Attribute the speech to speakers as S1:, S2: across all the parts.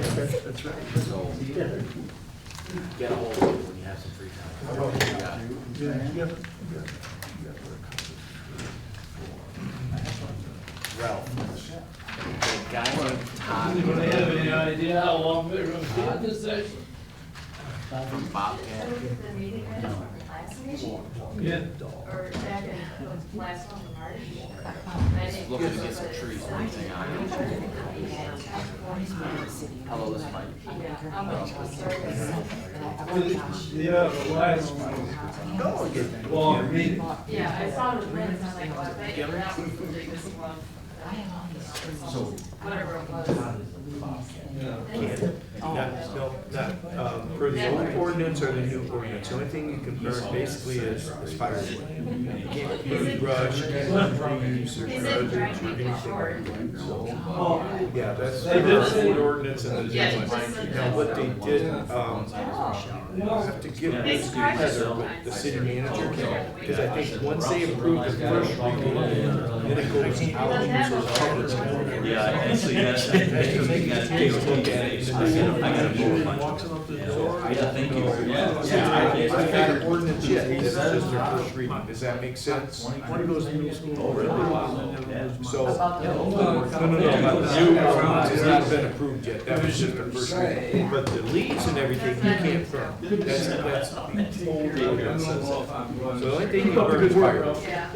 S1: That's right.
S2: So get a hold of it when you have some free time. Ralph. The guy named
S3: Do they
S2: Todd
S3: have any idea how long they're gonna be in this session?
S2: from Bobcat.
S4: The meeting minutes from the last meeting,
S3: Yeah.
S4: or back in the last one, the March. I
S2: He's
S4: didn't-
S2: Looking to get some trees and everything on it. Hello, this is Mike.
S4: Yeah, I'm gonna start with-
S3: Yeah, the last one. Long meeting.
S4: Yeah, I saw the minutes, I'm like, well, I bet you that was the biggest one. Whatever it was.
S3: Yeah.
S1: That, no, that, um, for the old ordinance or the new ordinance, the only thing you can burn basically is is firewood. You can't burn brush, you can't burn leaves or
S4: He
S1: drugs
S4: said
S1: or
S4: trying to get
S1: anything.
S4: short.
S3: Oh,
S1: Yeah, that's
S3: They did
S1: the
S3: say-
S1: old ordinance and the
S4: Yeah,
S1: new
S4: he
S1: one.
S4: just said
S1: Now,
S4: that.
S1: what they did, um, I
S3: no.
S1: have to give
S4: They
S1: this
S4: surprised us
S1: credit with
S4: sometimes.
S1: the city manager, because I think once they approve the first reading, then it goes
S4: Doesn't
S1: out. to
S4: have
S1: the
S4: a short
S1: public.
S4: one.
S5: Yeah, actually, that's, I
S1: Take a look at
S5: I
S1: it.
S5: gotta- I gotta do it.
S1: Walks up to the door.
S5: Yeah, thank you. Yeah.
S1: Yeah, I, I got an ordinance yet, this is just their first reading, does that make sense? One goes to middle school. Oh, really? So, no, no, no, but the new ordinance has not been approved yet, that was just their first reading, but the leaves and everything, you can't burn, that's, that's the old ordinance. So the only thing you burn is firewood.
S4: Yeah.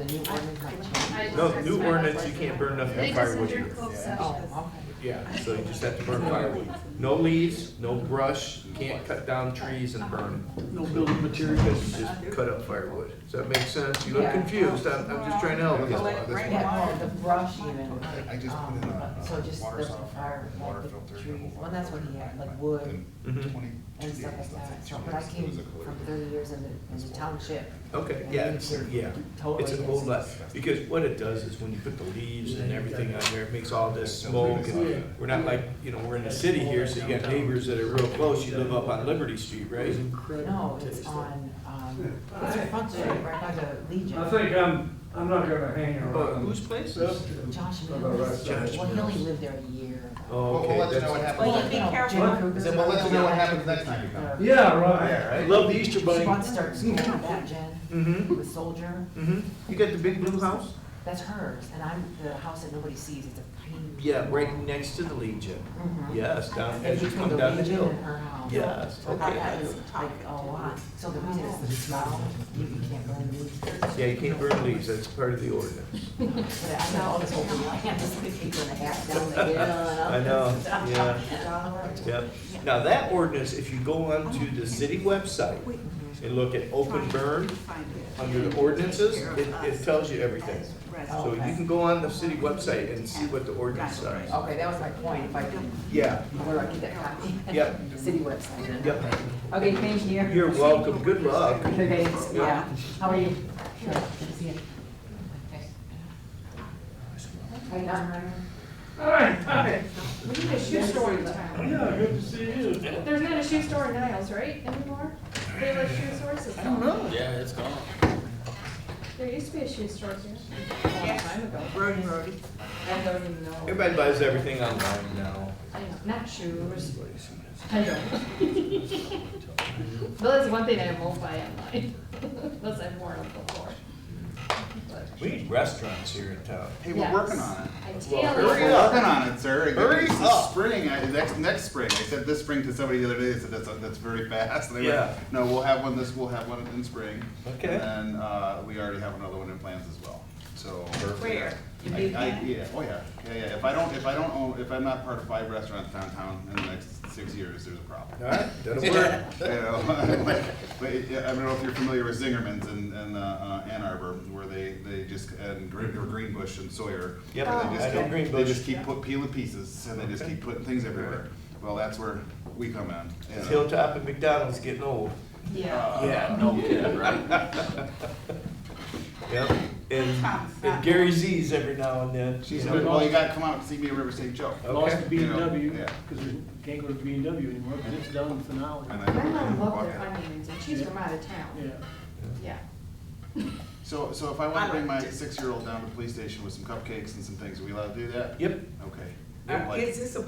S4: I just-
S1: No, the new ordinance, you can't burn nothing
S4: They
S1: but
S4: just
S1: firewood.
S4: entered closed session.
S6: Oh,
S1: Yeah, so you just have to burn firewood. No leaves, no brush, you can't cut down trees and burn. No building materials. Just cut up firewood. Does that make sense? You look
S6: Yeah.
S1: confused, I'm, I'm just trying to help you.
S6: Yeah, the brush even.
S7: I- I just put in a,
S6: um, So just
S7: uh, water
S6: the
S7: softener,
S6: fire,
S7: water
S6: like
S7: filter,
S6: the
S7: and a
S6: trees,
S7: water
S6: well, that's what he had,
S7: filter.
S6: like wood
S7: And
S1: Mhm.
S7: 22
S6: and stuff
S7: days,
S6: like
S7: that's like
S6: that. So,
S7: two
S6: but I
S7: years. It
S6: came
S7: was a quarter.
S6: from thirty years in the, in the township.
S1: Okay, yeah, it's, yeah, it's an old lot, because what it does is when you put the leaves and everything on there, it makes all this smoke. and We're not like, you know, we're in the city here, so you got neighbors that are real close, you live up on Liberty Street, right?
S6: No, it's on, um, it's a front street right by the
S3: I
S6: Legion.
S3: think I'm, I'm not gonna hang
S1: Uh,
S3: around.
S1: Whose place is?
S6: Josh
S3: About right
S6: Mills,
S3: side.
S6: well, he only lived there a year.
S1: Oh,
S7: Well,
S1: okay.
S7: we'll let you know
S1: that's-
S7: what happens.
S6: Well, be careful.
S7: Then we'll let you know what happens next time you come.
S3: Yeah, right.
S7: Yeah, right?
S1: Love the Easter
S6: She
S1: Bunny.
S6: wants to start school with that, Jen,
S1: Mm-hmm,
S6: with Soldier,
S1: mm-hmm. You got the big blue house?
S6: that's hers, and I'm the house that nobody sees, it's a pain.
S1: Yeah, right next to the Legion.
S6: Mhm.
S1: Yes, down, as you
S6: Between
S1: come
S6: the
S1: down the
S6: Legion
S1: hill.
S6: and Oh, her house.
S1: Yes,
S6: I thought that
S1: okay.
S6: was like a lot, so the reason is the smell, you can't burn leaves. But
S1: Yeah, you can't burn leaves, that's part of the ordinance.
S6: I know all this whole land is gonna be gonna half down the hill and up.
S1: I know, yeah. Yep. Now, that ordinance, if you go onto the city website and look at open burn under the ordinances, it, it tells you everything. So you can go on the city website and see what the ordinances are.
S6: Okay, that was my point, if I can,
S1: Yeah,
S6: where I get that copy.
S1: Yep.
S6: City website.
S1: yep.
S6: Okay, thank you.
S1: You're welcome, good luck.
S6: Okay, thanks. yeah, how are you? Sure. How you doing, Ryan?
S3: Hi, hi.
S4: We need a shoe store in town.
S3: Yeah, good to see you.
S4: There's not a shoe store in Niles, right, anymore? They have a shoe stores? I don't
S2: Yeah, it's gone.
S4: There used to be a shoe store here.
S6: Brody, Brody.
S4: I don't even know.
S1: Everybody buys everything online now.
S4: I know, not shoes. I don't. But that's one thing I won't buy online, unless I've worn them before. But-
S1: We need restaurants here in town.
S7: Hey, we're
S4: Yes.
S7: working on it.
S4: I
S1: Well,
S4: tell
S1: hurry
S4: you.
S7: We're
S1: up.
S7: working on it, sir. It-
S1: Hurry up.
S7: it's this Spring, I- next, next spring. I said this spring to somebody the other day, they said that's, that's very fast. They were,
S1: Yeah.
S7: No, we'll have one this, we'll have one in spring.
S1: Okay.
S7: And, uh, we already have another one in plans as well, so.
S6: Where?
S7: I, I, yeah, oh yeah, yeah, yeah. If I don't, if I don't own, if I'm not part of five restaurants downtown in the next six years, there's a problem.
S1: All right, that'll work.
S7: You know, like, but it- yeah, I don't know if you're familiar with Zingerman's in, in uh, uh, Ann Arbor, where they, they just, and Green, or Greenbush and Sawyer.
S1: Yep,
S7: where they just
S1: I know
S7: keep- They
S1: Greenbush.
S7: just keep put, peeling pieces, and they just keep putting things everywhere. Well, that's where we come in. you know. Uh,
S1: Hilltop and McDonald's getting old.
S4: Yeah.
S1: Yeah.
S2: No kidding, right?
S1: Yep, and, and Gary Z's every now and then.
S7: She
S1: you
S7: said,
S1: know.
S7: well, you gotta come out and see me at River St. Joe.
S1: Okay.
S3: um,
S8: Lost to B
S7: You
S8: and
S7: know,
S8: W,
S7: yeah.
S8: because we can't go to B and W anymore, because it's done for now.
S7: And I-
S4: My mom loved their
S7: walk out.
S4: onions, and she's from out of town,
S8: Yeah.
S4: yeah.
S7: So, so if I wanna bring my six-year-old down to the police station with some cupcakes and some things, are we allowed to do that?
S1: Yep,
S7: Okay.
S6: Is this a